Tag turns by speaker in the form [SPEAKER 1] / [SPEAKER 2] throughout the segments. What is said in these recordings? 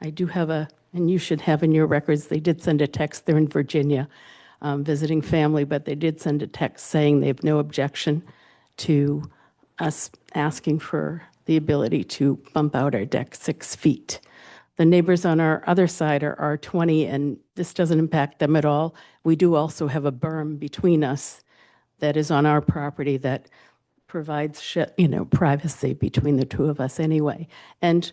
[SPEAKER 1] I do have a, and you should have in your records, they did send a text, they're in Virginia, um, visiting family, but they did send a text saying they have no objection to us asking for the ability to bump out our deck six feet. The neighbors on our other side are R20, and this doesn't impact them at all. We do also have a berm between us that is on our property that provides, sh- you know, privacy between the two of us anyway. And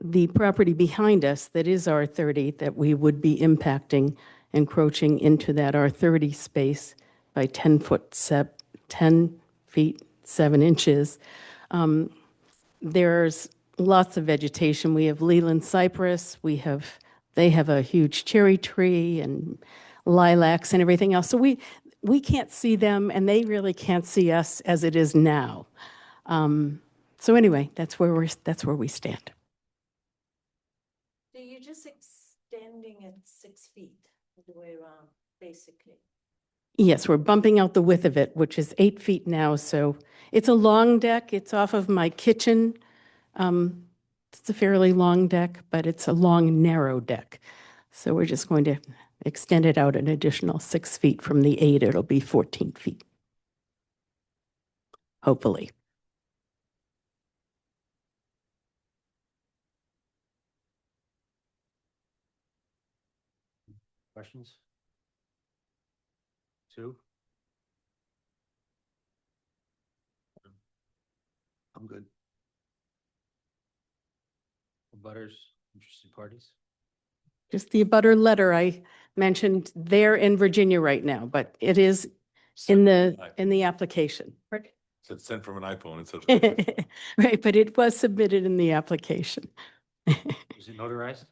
[SPEAKER 1] the property behind us that is R30, that we would be impacting, encroaching into that R30 space by 10 foot, sep- 10 feet, 7 inches. Um, There's lots of vegetation. We have Leland cypress, we have, they have a huge cherry tree and lilacs and everything else. So we, we can't see them, and they really can't see us as it is now. Um, So anyway, that's where we're, that's where we stand.
[SPEAKER 2] So you're just extending it six feet all the way around, basically.
[SPEAKER 1] Yes, we're bumping out the width of it, which is eight feet now, so it's a long deck. It's off of my kitchen. Um, It's a fairly long deck, but it's a long, narrow deck. So we're just going to extend it out an additional six feet from the eight. It'll be 14 feet. Hopefully.
[SPEAKER 3] Questions? Two? I'm good. Butters, interested parties?
[SPEAKER 1] Just the abutter letter I mentioned, they're in Virginia right now, but it is in the, in the application.
[SPEAKER 4] It's sent from an iPhone instead of.
[SPEAKER 1] Right, but it was submitted in the application.
[SPEAKER 3] Is it notarized?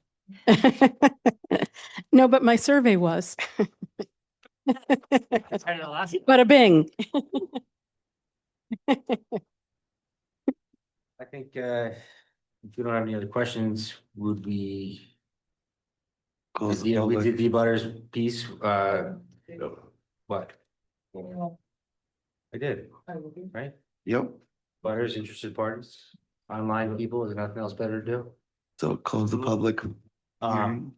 [SPEAKER 1] No, but my survey was. But
[SPEAKER 3] I didn't ask.
[SPEAKER 1] a bing.
[SPEAKER 3] I think, uh, if you don't have any other questions, would we?
[SPEAKER 4] Close the
[SPEAKER 3] Yeah, we did
[SPEAKER 4] public.
[SPEAKER 3] the butters piece, uh, what? I did, right?
[SPEAKER 4] Yep,
[SPEAKER 3] Butters, interested parties, online people, there's nothing else better to do.
[SPEAKER 4] so close the public.
[SPEAKER 3] Um,
[SPEAKER 4] hearing.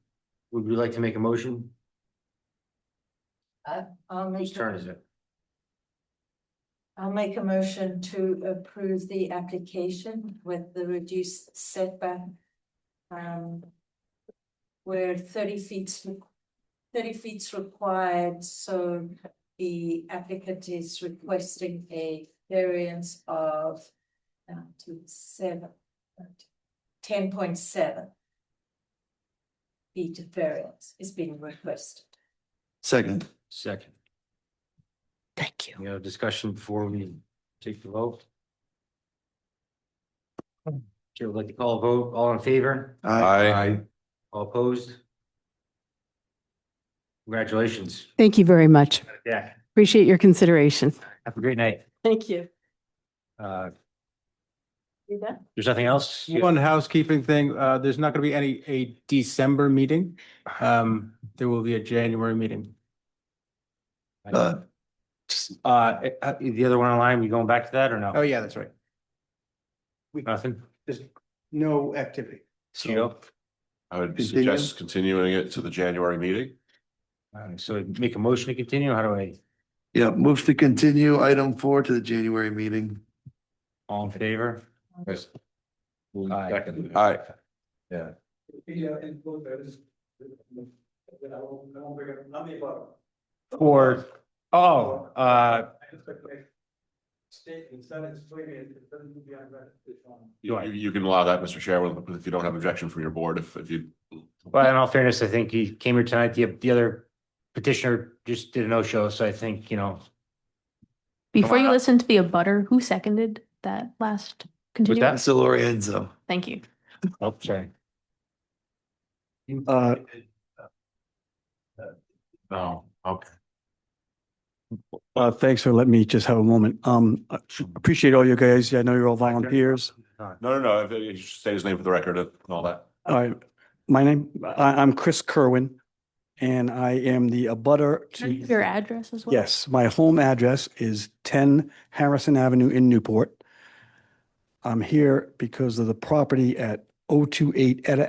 [SPEAKER 3] would we like to make a motion?
[SPEAKER 2] I'll
[SPEAKER 3] Whose
[SPEAKER 2] make,
[SPEAKER 3] turn
[SPEAKER 2] a-
[SPEAKER 3] is it?
[SPEAKER 2] I'll make a motion to approve the application with the reduced setback. Um, where thirty feet's, thirty feet's required, so the applicant is requesting a variance of uh, to seven, ten point seven feet of variance is being requested.
[SPEAKER 4] Second,
[SPEAKER 3] Second,
[SPEAKER 1] Thank you.
[SPEAKER 3] you know, discussion before we take the vote. Chair would like to call a vote, all in favor,
[SPEAKER 4] I,
[SPEAKER 3] all opposed? Congratulations.
[SPEAKER 1] Thank you very much.
[SPEAKER 3] Yeah.
[SPEAKER 1] Appreciate your consideration.
[SPEAKER 3] Have a great night.
[SPEAKER 1] Thank you.
[SPEAKER 3] Uh,
[SPEAKER 2] You done?
[SPEAKER 3] there's nothing else?
[SPEAKER 5] One housekeeping thing, uh, there's not gonna be any, a December meeting. Um, there will be a January meeting.
[SPEAKER 4] uh,
[SPEAKER 3] Uh, uh, the other one online, we going back to that or
[SPEAKER 5] Oh,
[SPEAKER 3] no?
[SPEAKER 5] yeah, that's right.
[SPEAKER 3] Nothing?
[SPEAKER 5] No activity.
[SPEAKER 3] So,
[SPEAKER 6] I would
[SPEAKER 4] Continue.
[SPEAKER 6] suggest continuing it to the January meeting.
[SPEAKER 3] uh, so make a motion to continue, how do I,
[SPEAKER 4] yeah, move to continue item four to the January meeting.
[SPEAKER 3] all in favor? Aye.
[SPEAKER 6] Second. Aye.
[SPEAKER 3] Or, oh, uh,
[SPEAKER 6] You, you- you can allow that, Mr. Chairman, if you don't have objection from your board, if, if you.
[SPEAKER 3] well, in all fairness, I think he came here tonight, the, the other petitioner just did a no-show, so I think, you know,
[SPEAKER 7] Before
[SPEAKER 3] on
[SPEAKER 7] you
[SPEAKER 3] up.
[SPEAKER 7] listen to the abutter, who seconded that last continuance?
[SPEAKER 4] Mr. Lorenzo.
[SPEAKER 7] Thank you.
[SPEAKER 3] oh, sorry.
[SPEAKER 4] Uh,
[SPEAKER 6] No, okay.
[SPEAKER 8] Uh, thanks for letting me just have a moment. Um, I appreciate all you guys. I know you're all volunteers.
[SPEAKER 6] No, no, no, if- if you should say his name for the record and all that.
[SPEAKER 8] Uh, my name, I, I'm Chris Kerwin and I am the abutter
[SPEAKER 7] Can I give Your
[SPEAKER 8] to.
[SPEAKER 7] address as well?
[SPEAKER 8] Yes, my home address is ten Harrison Avenue in Newport. I'm here because of the property at oh two eight Etta